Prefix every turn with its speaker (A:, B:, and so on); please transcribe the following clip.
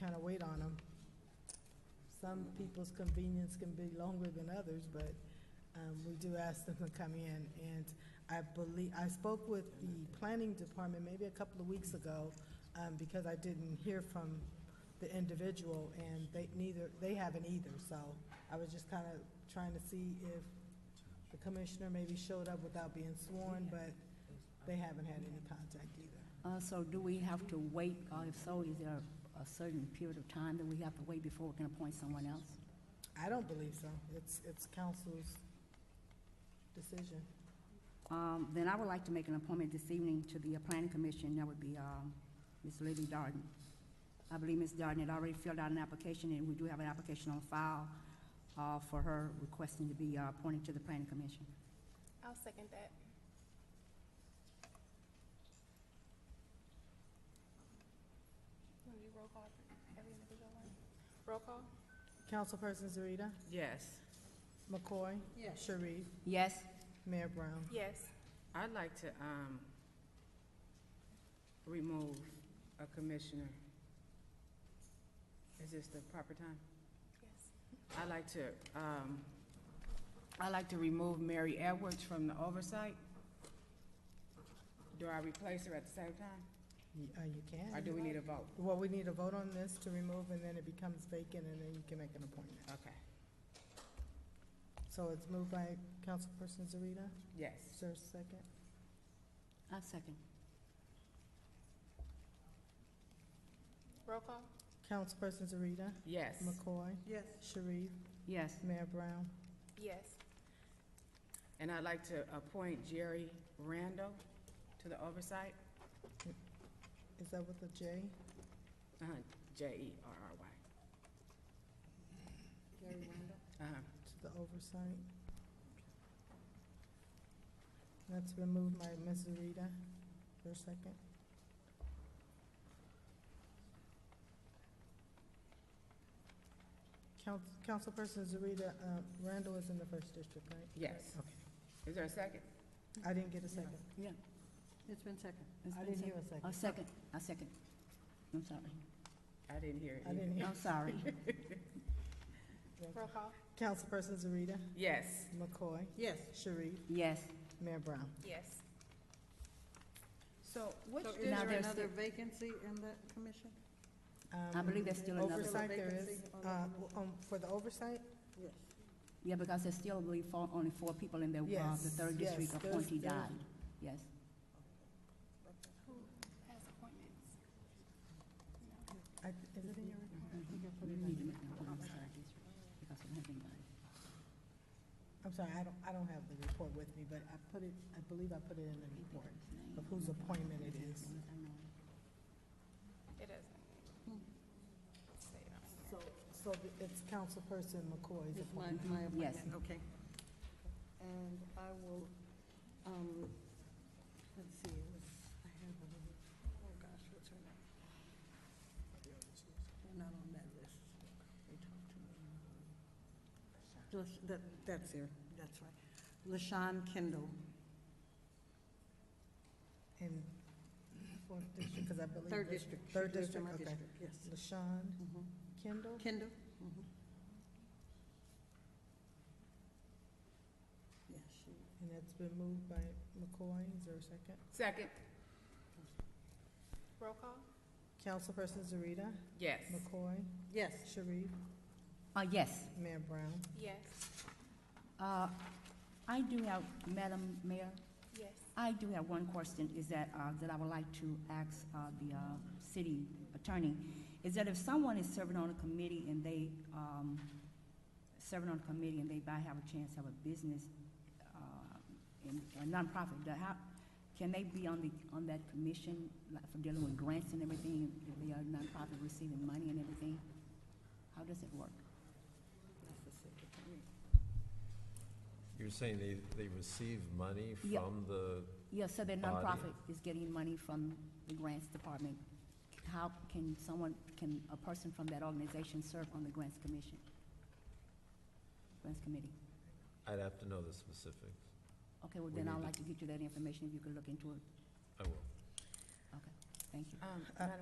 A: kind of wait on them. Some people's convenience can be longer than others, but um, we do ask them to come in. And I believe, I spoke with the planning department maybe a couple of weeks ago, um, because I didn't hear from the individual, and they neither, they haven't either, so I was just kind of trying to see if the commissioner maybe showed up without being sworn, but they haven't had any contact either.
B: Uh, so do we have to wait, or if so, is there a certain period of time that we have to wait before we can appoint someone else?
A: I don't believe so. It's, it's council's decision.
B: Um, then I would like to make an appointment this evening to the uh, Planning Commission, that would be, um, Ms. Lily Darden. I believe Ms. Darden had already filled out an application, and we do have an application on file, uh, for her requesting to be, uh, appointed to the Planning Commission.
C: I'll second that. Want to do roll call for every individual one? Roll call?
A: Councilperson Zarita,
D: Yes,
A: McCoy. Sharif,
B: Yes?
A: Mayor Brown.
C: Yes.
D: I'd like to, um, remove a commissioner. Is this the proper time?
C: Yes.
D: I'd like to, um, I'd like to remove Mary Edwards from the oversight. Do I replace her at the same time,
A: Y- Uh, you
D: or
A: can.
D: do we need a vote?
A: Well, we need a vote on this to remove, and then it becomes vacant, and then you can make an appointment.
D: Okay,
A: So it's moved by Councilperson Zarita. Is
D: yes.
A: there a second?
B: I second.
C: Roll call?
A: Councilperson Zarita,
D: Yes,
A: McCoy. Yes. Sharif,
B: Yes.
A: Mayor Brown.
C: Yes.
D: and I'd like to appoint Jerry Randall to the oversight,
A: Is that with a J?
D: uh-huh, J-E-R-R-Y.
B: Gary Randall?
D: Uh-huh,
A: To the oversight? That's been moved by Ms. Zarita. Is there a second? Council, Councilperson Zarita, uh, Randall is in the first district, right?
D: yes. Is there a second?
A: I didn't get a second.
B: Yeah.
E: It's been second.
B: It's
A: I
B: been
A: didn't hear
B: sec-
A: a second.
B: A second, I second. I'm sorry.
D: I didn't hear it.
A: I didn't hear.
B: I'm sorry.
C: Roll call?
A: Councilperson Zarita,
D: Yes,
A: McCoy,
E: Yes.
A: Sharif,
B: Yes.
A: Mayor Brown.
C: Yes.
D: so which
E: So is
B: Now
E: there
B: there's
E: another
B: the-
E: vacancy in that commission?
B: I believe there's still another.
A: Um, Oversight there is,
E: Vacancy on
A: uh,
E: the
A: um, for the oversight?
E: Yes.
B: Yeah, because there's still, I believe, four, only four people in the, uh, the
A: Yes,
B: third
A: yes,
B: district
A: there's-
B: appointee
A: there's-
B: died. Yes.
C: Who has appointments?
A: I, is it in your?
B: We need to make an appointment to that district, because we don't have anybody.
A: I'm sorry, I don't, I don't have the report with me, but I put it, I believe I put it in the report of whose appointment it is.
C: It doesn't. Say it on here.
A: So, so it's Councilperson McCoy's
E: It's my,
A: appointment.
E: my
B: Yes.
E: appointment, okay. And I will, um, let's see, it was, I have a little, oh gosh, what's her name? They're not on that list. They talked to me. Just, that, that's her, that's right. LaShawn Kendall.
A: In fourth district, because I believe.
E: Third
A: this-
E: district.
A: Third
E: She lives in
A: district,
E: my
A: okay.
E: district, Yes.
A: LaShawn
E: Mhm.
A: Kendall,
E: Kendall? Mhm. Yes, she,
A: and it's been moved by McCoy. Is there a second?
D: second,
C: Roll call?
A: Councilperson Zarita,
D: yes.
A: McCoy,
E: yes.
A: Sharif,
B: Uh, yes.
A: Mayor Brown.
C: Yes.
B: Uh, I do have, Madam Mayor,
C: Yes.
B: I do have one question, is that, uh, that I would like to ask, uh, the, uh, city attorney, is that if someone is serving on a committee and they, um, serving on a committee and they might have a chance to have a business, uh, in, a nonprofit, the, how, can they be on the, on that commission, like, for dealing with grants and everything, if they are nonprofit receiving money and everything? How does it work?
F: You're saying they, they receive money
B: Yeah.
F: from the,
B: Yeah, so the
F: Body.
B: nonprofit is getting money from the grants department. How can someone, can a person from that organization serve on the grants commission? Grants committee?
F: I'd have to know the specifics.
B: Okay, well,
F: We
B: then
F: need
B: I'd
F: to-
B: like to get you that information if you could look into it.
F: I will.
B: Okay, thank you.
D: Um,
A: Uh,
D: Madam